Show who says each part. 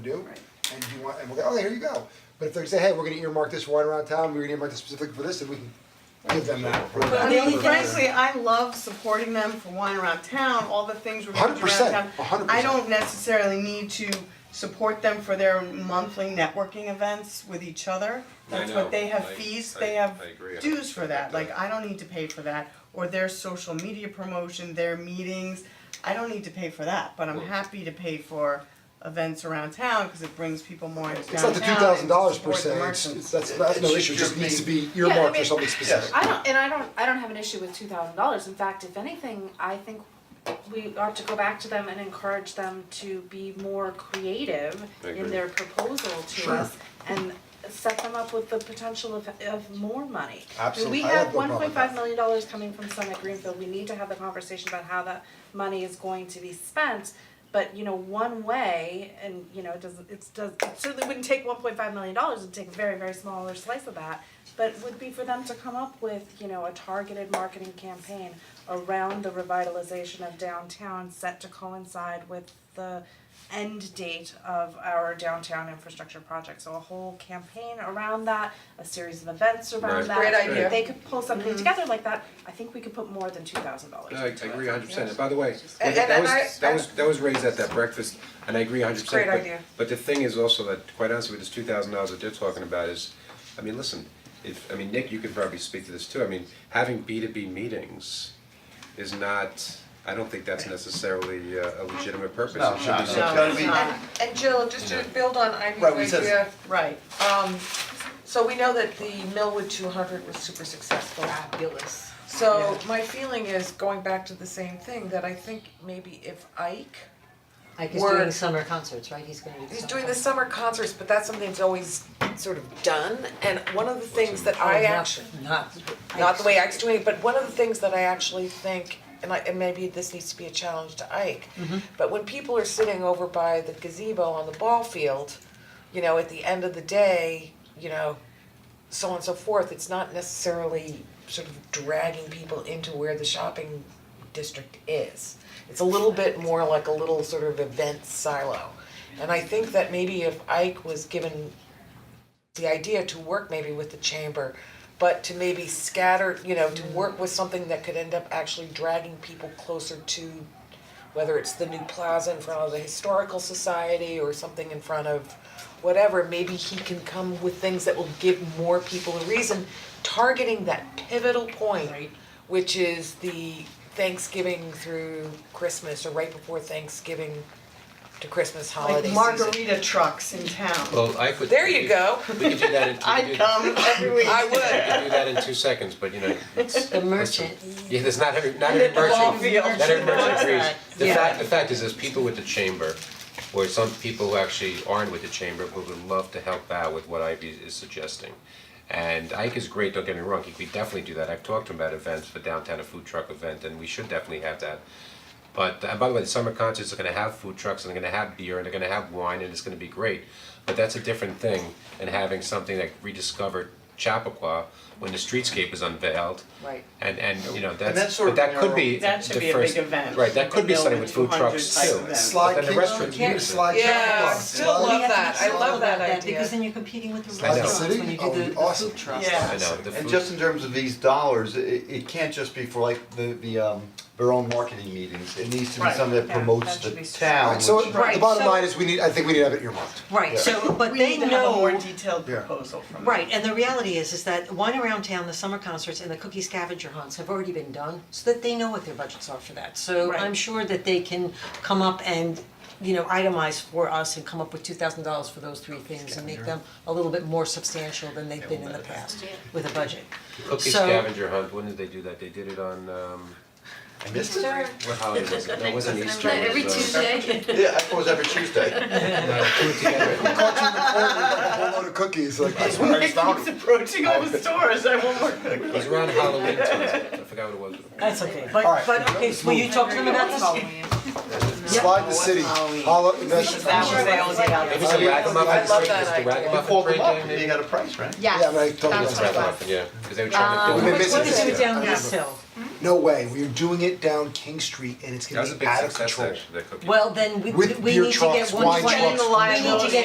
Speaker 1: do,
Speaker 2: Right.
Speaker 1: and you want, and we'll go, okay, here you go. But if they say, hey, we're gonna earmark this one around town, we're gonna earmark this specifically for this, then we can give them that. for
Speaker 2: I
Speaker 1: that.
Speaker 2: mean, frankly, I love supporting them for wine around town, all the things we're doing around
Speaker 1: 100%,
Speaker 2: town.
Speaker 1: 100%.
Speaker 2: I don't necessarily need to support them for their monthly networking events with each other.
Speaker 3: I
Speaker 2: That's
Speaker 3: know,
Speaker 2: what they have
Speaker 3: I-
Speaker 2: fees,
Speaker 3: I-
Speaker 2: they have
Speaker 3: I agree, I
Speaker 2: dues for that,
Speaker 3: think
Speaker 2: like
Speaker 3: that-
Speaker 2: I don't need to pay for that, or their social media promotion, their meetings. I don't need to pay for that, but I'm
Speaker 3: Well-
Speaker 2: happy to pay for events around town, cause it brings people more into
Speaker 1: It's not
Speaker 2: downtown
Speaker 1: the
Speaker 2: and
Speaker 1: two thousand dollars per
Speaker 2: support the
Speaker 1: se, it's,
Speaker 2: merchants.
Speaker 1: it's, that's, that's no
Speaker 4: It
Speaker 1: issue, it
Speaker 4: should
Speaker 1: just needs to
Speaker 4: just
Speaker 1: be
Speaker 5: I
Speaker 1: earmarked for
Speaker 5: mean-
Speaker 1: something specific.
Speaker 5: I don't, and I don't, I don't have an issue with two thousand dollars, in fact, if anything, I think we ought to go back to them and encourage them to be more creative
Speaker 3: I agree.
Speaker 5: in their proposal to
Speaker 1: Sure.
Speaker 5: us and set them up with the potential of of more money.
Speaker 1: Absolute-
Speaker 5: We
Speaker 1: I have
Speaker 5: have
Speaker 1: no
Speaker 5: one
Speaker 1: problem
Speaker 5: point
Speaker 1: with that.
Speaker 5: five million dollars coming from Summit Greenfield, we need to have the conversation about how that money is going to be spent. But you know, one way, and you know, it doesn't, it's does, it certainly wouldn't take one point five million dollars, it'd take a very, very smaller slice of that. But would be for them to come up with, you know, a targeted marketing campaign around the revitalization of downtown set to coincide with the end date of our downtown infrastructure project. So a whole campaign around that, a series of events around
Speaker 3: Right.
Speaker 5: that.
Speaker 6: Great idea.
Speaker 5: If they could pull something together like that, I think we could put more than two thousand dollars
Speaker 3: No, I I
Speaker 5: into it.
Speaker 3: agree hundred percent, and by the way,
Speaker 6: And-
Speaker 3: that
Speaker 6: and
Speaker 3: was,
Speaker 6: I-
Speaker 3: that was, that was raised at that breakfast, and I agree hundred percent,
Speaker 6: Great
Speaker 3: but
Speaker 6: idea.
Speaker 3: but the thing is also that, quite honestly, with this two thousand dollars that they're talking about is, I mean, listen, if, I mean, Nick, you can probably speak to this too, I mean, having B two B meetings is not, I don't think that's necessarily uh, a legitimate purpose,
Speaker 4: No,
Speaker 3: it should be
Speaker 4: no,
Speaker 3: something.
Speaker 4: no.
Speaker 2: No, it's not,
Speaker 6: And Jill, just to build on Ivy's
Speaker 4: Right, we said-
Speaker 6: idea,
Speaker 2: right.
Speaker 6: um, so we know that the Millwood two hundred was super successful.
Speaker 2: Fabulous.
Speaker 6: So my feeling is, going back to the same thing, that I think maybe if Ike,
Speaker 7: Like he's
Speaker 6: We're-
Speaker 7: doing summer concerts, right? He's gonna do the
Speaker 6: he's
Speaker 7: summer
Speaker 6: doing the
Speaker 7: concerts.
Speaker 6: summer concerts, but that's something that's always sort of done, and one of the things that I
Speaker 7: Oh, not-
Speaker 6: actually.
Speaker 7: Not.
Speaker 6: not the way Ike's doing it, but one of the things that I actually think, and I, and maybe this needs to be a challenge to Ike, but when people are sitting over by the gazebo on the ball field, you know, at the end of the day, you know, so on and so forth, it's not necessarily sort of dragging people into where the shopping district is. It's a little bit more like a little sort of event silo. And I think that maybe if Ike was given the idea to work maybe with the chamber, but to maybe scatter, you know, to work with something that could end up actually dragging people closer to whether it's the new plaza in front of the historical society or something in front of whatever, maybe he can come with things that will give more people a reason, targeting that pivotal point, which is the Thanksgiving through Christmas or right before Thanksgiving to Christmas holiday
Speaker 2: Like
Speaker 6: season.
Speaker 2: margarita trucks in town.
Speaker 3: Well, I could.
Speaker 6: There you go.
Speaker 3: We could do that in, we could
Speaker 2: I'd
Speaker 3: do,
Speaker 2: come every week.
Speaker 6: I would.
Speaker 3: we could do that in two seconds, but you know, it's-
Speaker 7: The merchant.
Speaker 3: Yeah, there's not every, not every
Speaker 2: the ball
Speaker 3: merchant,
Speaker 2: field.
Speaker 3: not every merchant
Speaker 2: Yeah.
Speaker 3: agrees. The
Speaker 2: Yeah.
Speaker 3: fact, the fact is, there's people with the chamber, or some people who actually aren't with the chamber, who would love to help out with what Ivy is suggesting. And Ike is great, don't get me wrong, he could definitely do that, I've talked to him about events, for downtown a food truck event, and we should definitely have that. But, and by the way, the summer concerts are gonna have food trucks, and they're gonna have beer, and they're gonna have wine, and it's gonna be great. But that's a different thing than having something like rediscovered Chappaqua, when the streetscape is unveiled,
Speaker 7: Right.
Speaker 3: and and you know,
Speaker 4: that's
Speaker 3: that's,
Speaker 4: sort
Speaker 3: but
Speaker 4: of
Speaker 3: that could be the
Speaker 2: That
Speaker 3: first.
Speaker 2: should be a big event,
Speaker 3: Right, that
Speaker 2: like
Speaker 3: could
Speaker 2: a
Speaker 3: be something
Speaker 2: Millwood
Speaker 3: with food
Speaker 2: 200
Speaker 3: trucks
Speaker 2: type
Speaker 3: too,
Speaker 2: event.
Speaker 3: but
Speaker 1: Slide
Speaker 3: then the
Speaker 1: King-
Speaker 3: restaurant.
Speaker 1: King- Slide King
Speaker 6: Yeah,
Speaker 1: Club,
Speaker 6: still
Speaker 1: Slide-
Speaker 6: love that. I love that idea.
Speaker 7: Because then you're competing with the
Speaker 3: I know.
Speaker 7: restaurants when you do
Speaker 1: City?
Speaker 7: the
Speaker 1: Oh,
Speaker 7: the
Speaker 1: awesome.
Speaker 7: food trucks.
Speaker 2: Yeah.
Speaker 3: I know, the
Speaker 8: And
Speaker 3: food-
Speaker 8: just in terms of these dollars, it it can't just be for like the the um their own marketing meetings, it needs to be
Speaker 2: Right.
Speaker 8: something that
Speaker 5: Yeah,
Speaker 8: promotes
Speaker 5: that
Speaker 8: the
Speaker 5: should be
Speaker 8: town,
Speaker 1: Alright, so
Speaker 8: which-
Speaker 1: the bottom line is, we need, I think we need to have it earmarked.
Speaker 7: Right, so, but
Speaker 2: We
Speaker 7: they
Speaker 2: need to have a more
Speaker 7: know,
Speaker 2: detailed
Speaker 1: Yeah.
Speaker 2: proposal from them.
Speaker 7: right, and the reality is, is that Wine Around Town, the summer concerts and the cookie scavenger hunts have already been done, so that they know what their budgets are for that. So
Speaker 2: Right.
Speaker 7: I'm sure that they can come up and, you know, itemize for us and come up with two thousand dollars for those three things and make them a little bit more substantial than they've been in the past with a budget.
Speaker 3: Cookie
Speaker 7: So-
Speaker 3: scavenger hunt, when did they do that? They did it on um,
Speaker 8: I missed it.
Speaker 5: Sure.
Speaker 3: what holiday was it? No, it wasn't Easter, it
Speaker 5: Every
Speaker 3: was, uh,
Speaker 5: Tuesday,
Speaker 8: Yeah, I thought it was every Tuesday.
Speaker 1: Caught you in the corner with like a whole load of cookies, like, this one
Speaker 2: It keeps approaching all the stores, I want more cookies.
Speaker 3: It was around Halloween time, I forgot what it was.
Speaker 7: That's okay,
Speaker 1: Alright,
Speaker 7: but but okay, so will you talk to them about this?
Speaker 1: slide the city, hollow, that's,
Speaker 2: That was they all get out
Speaker 3: It
Speaker 2: of.
Speaker 3: was a ragamuffin,
Speaker 6: I love
Speaker 3: it was
Speaker 6: that
Speaker 3: the
Speaker 6: idea.
Speaker 3: ragamuffin
Speaker 8: You called them
Speaker 3: break
Speaker 8: up,
Speaker 3: game,
Speaker 8: and you
Speaker 3: maybe?
Speaker 8: got a price, right?
Speaker 1: yeah, but I totally.
Speaker 3: It was
Speaker 1: missed that.
Speaker 3: ragamuffin, yeah, 'cause they were trying to
Speaker 1: We've
Speaker 3: film
Speaker 1: been
Speaker 3: it.
Speaker 1: missing
Speaker 7: What did
Speaker 1: this.
Speaker 7: you do down
Speaker 1: I
Speaker 7: this hill?
Speaker 1: No way, we are doing it down King Street and it's
Speaker 3: That
Speaker 1: gonna
Speaker 3: was a
Speaker 1: be
Speaker 3: big
Speaker 1: out of
Speaker 3: success,
Speaker 1: control.
Speaker 3: actually, that cookie.
Speaker 7: Well, then we
Speaker 1: With
Speaker 7: we
Speaker 1: beer
Speaker 7: need to
Speaker 1: trucks,
Speaker 7: get
Speaker 1: wine
Speaker 7: one twenty,
Speaker 1: trucks,
Speaker 7: we need to get